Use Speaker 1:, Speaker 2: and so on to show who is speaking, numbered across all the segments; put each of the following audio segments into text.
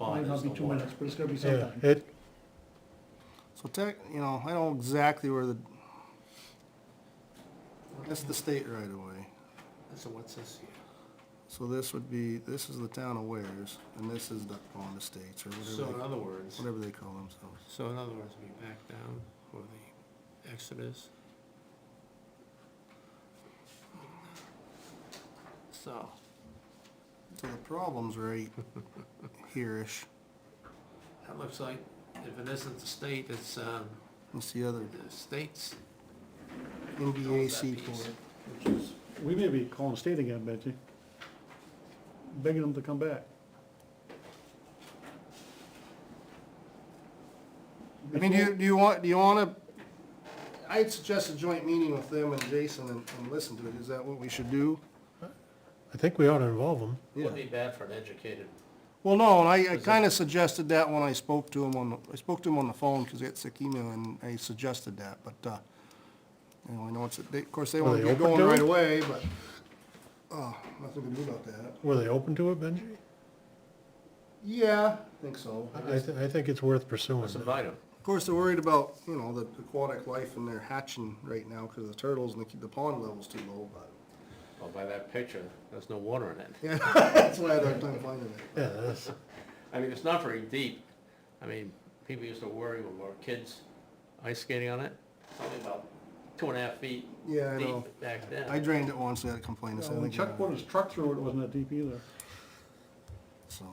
Speaker 1: Might
Speaker 2: spot
Speaker 1: not
Speaker 2: is
Speaker 1: be
Speaker 2: the
Speaker 1: two
Speaker 2: water.
Speaker 1: minutes, but it's gonna be
Speaker 3: Yeah,
Speaker 1: sometime.
Speaker 3: it,
Speaker 4: So tech, you know, I know exactly where the, that's the state right away.
Speaker 2: So what's this here?
Speaker 4: So this would be, this is the town of Wares, and this is Duck Pond Estates, or
Speaker 2: So
Speaker 4: whatever
Speaker 2: in
Speaker 4: they,
Speaker 2: other words,
Speaker 4: whatever they call themselves.
Speaker 2: so in other words, we back down for the Exodus. So,
Speaker 4: So the problem's right here-ish.
Speaker 2: that looks like, if it isn't the state, it's, um,
Speaker 4: It's the other
Speaker 2: the state's.
Speaker 4: NBAC
Speaker 2: Owns that piece.
Speaker 4: port.
Speaker 1: which is- We may be calling state again, Benji. Begging them to come back.
Speaker 4: I mean, do you, do you want, do you wanna, I'd suggest a joint meeting with them and Jason and, and listen to it. Is that what we should do?
Speaker 3: I think we ought to involve them.
Speaker 2: Wouldn't be bad for an educated,
Speaker 4: Well, no, and I, I kinda suggested that when I spoke to him on, the I spoke to him on the phone, cause he had sick email, and I suggested that, but, uh, you know, I know it's, a- they, of course, they
Speaker 3: Were
Speaker 4: wanna
Speaker 3: they
Speaker 4: get
Speaker 3: open
Speaker 4: going
Speaker 3: to
Speaker 4: right
Speaker 3: it?
Speaker 4: away, but, uh, nothing we can do about that.
Speaker 3: Were they open to it, Benji?
Speaker 4: Yeah, I think so.
Speaker 3: I, I thi- I think it's worth pursuing.
Speaker 2: let's invite him.
Speaker 4: Of course, they're worried about, you know, the aquatic life and they're hatching right now, cause the turtles and the, the pond level's too low, but,
Speaker 2: Well, by that picture, there's no water in it.
Speaker 4: yeah, that's why I had a hard time finding it.
Speaker 3: Yeah, that's,
Speaker 2: I mean, it's not very deep. I mean, people used to worry when we were kids ice skating on it. It's only about two and a half feet
Speaker 4: Yeah, I know.
Speaker 2: deep back
Speaker 4: I
Speaker 2: then.
Speaker 4: drained it once, I had a complaint, I
Speaker 1: Yeah,
Speaker 4: said, I
Speaker 1: When
Speaker 4: think,
Speaker 1: Chuck
Speaker 4: uh,
Speaker 1: put his truck through it, it wasn't that deep either.
Speaker 4: so.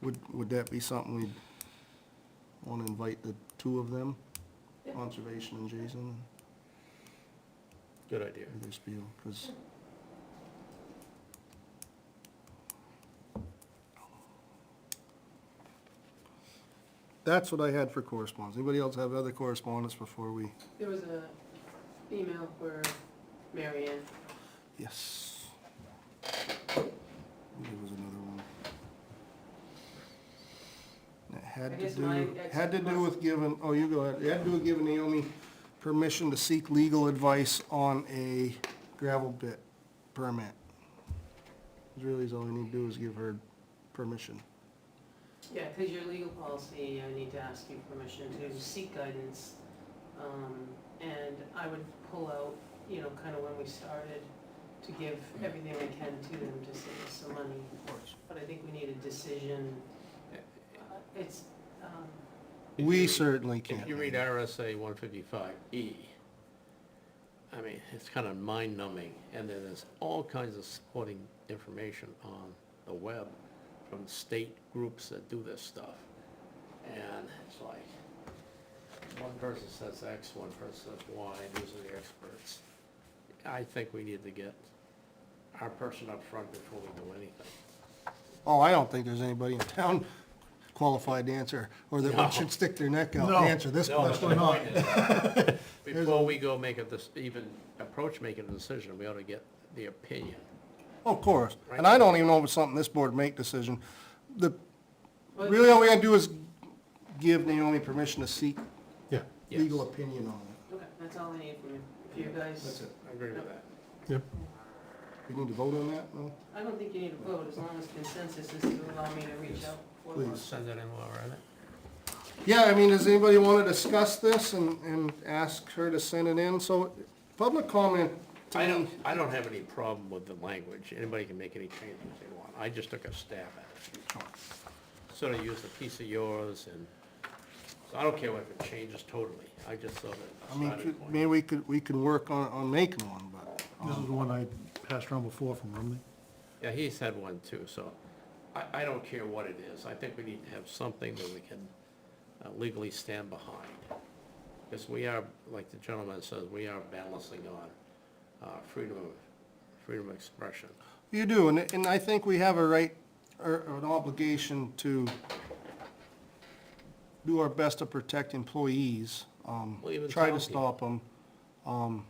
Speaker 4: Would, would that be something we'd wanna invite the two of them? Conservation and Jason,
Speaker 2: Good idea.
Speaker 4: do their spiel, cause. That's what I had for correspondence. Anybody else have other correspondence before we?
Speaker 5: There was a email where Marianne.
Speaker 4: Yes. There was another one. It
Speaker 5: I
Speaker 4: had to
Speaker 5: guess mine
Speaker 4: do,
Speaker 5: actually
Speaker 4: had to do with
Speaker 5: was-
Speaker 4: giving, oh, you go ahead, it had to do with giving Naomi permission to seek legal advice on a gravel bit permit. That's Really is all we need to do is give her permission.
Speaker 5: Yeah, because your legal policy, I need to ask you permission to seek guidance. Um, And I would pull out, you know, kind of when we started, to give everything I can to them to save us some money. But I think we need a decision. Uh, It's, um,
Speaker 2: If you
Speaker 4: We
Speaker 2: read-
Speaker 4: certainly can't.
Speaker 2: If you read
Speaker 4: make it.
Speaker 2: RSA one fifty-five E, I mean, it's kind of mind numbing. And then there's all kinds of supporting information on the web from state groups that do this stuff. And it's like, one person says X, one person says Y, and these are the experts. I think we need to get our person up front before we do anything.
Speaker 4: Oh, I don't think there's anybody in town qualified to answer, or that
Speaker 2: No.
Speaker 4: one should stick their neck out to
Speaker 3: No.
Speaker 4: answer this
Speaker 2: No,
Speaker 4: question.
Speaker 2: but my point is, Before we go make a, dec- even approach making a decision, we ought to get the opinion.
Speaker 4: Of course,
Speaker 2: Right.
Speaker 4: and I don't even know if it's something this board make decision. The,
Speaker 5: Well-
Speaker 4: really all we gotta do is give Naomi permission to seek
Speaker 3: yeah,
Speaker 2: Yes.
Speaker 4: legal opinion on it.
Speaker 5: okay, that's all I need from you. If you guys,
Speaker 2: I agree with that.
Speaker 3: yep.
Speaker 4: We need to vote on that, no?
Speaker 5: I don't think you need a vote, as long as consensus is to allow me to reach out for
Speaker 4: Please.
Speaker 5: one.
Speaker 2: Send it in while we're at it.
Speaker 4: Yeah, I mean, does anybody wanna discuss this and, and ask her to send it in? So, public comment, to
Speaker 2: I
Speaker 4: me,
Speaker 2: don't, I don't have any problem with the language. Anybody can make any changes they want. I just took a stab at it. Sort of used a piece of yours and, so I don't care what it changes totally. I just thought it,
Speaker 4: I
Speaker 2: a
Speaker 4: mean,
Speaker 2: starting
Speaker 4: could-
Speaker 2: point.
Speaker 4: maybe we could, we could work on, on making one, but. um,
Speaker 1: This is the one I passed around before from Romney.
Speaker 2: Yeah, he's had one too, so I, I don't care what it is. I think we need to have something that we can uh, legally stand behind. Because we are, like the gentleman says, we are balancing on uh, freedom of, freedom of expression.
Speaker 4: You do, and, and I think we have a right, or or an obligation to do our best to protect employees, um,
Speaker 2: Well, even
Speaker 4: try
Speaker 2: town
Speaker 4: to
Speaker 2: people.
Speaker 4: stop them. um.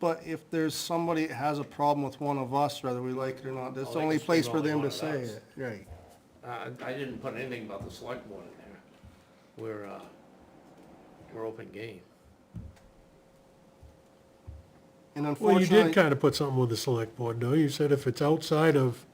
Speaker 4: But if there's somebody that has a problem with one of us, whether we like it or not,
Speaker 2: Well,
Speaker 4: that's the
Speaker 2: Oh, they
Speaker 4: only
Speaker 2: can
Speaker 4: place
Speaker 2: scream
Speaker 4: for
Speaker 2: all they
Speaker 4: them to
Speaker 2: want
Speaker 4: say
Speaker 2: at us.
Speaker 4: it. Right.
Speaker 2: Uh, I didn't put anything about the select board in there. We're, uh, we're open game.
Speaker 4: And
Speaker 3: Well, you did
Speaker 4: unfortunately,
Speaker 3: kind of put something with the select board, though. You said if it's outside of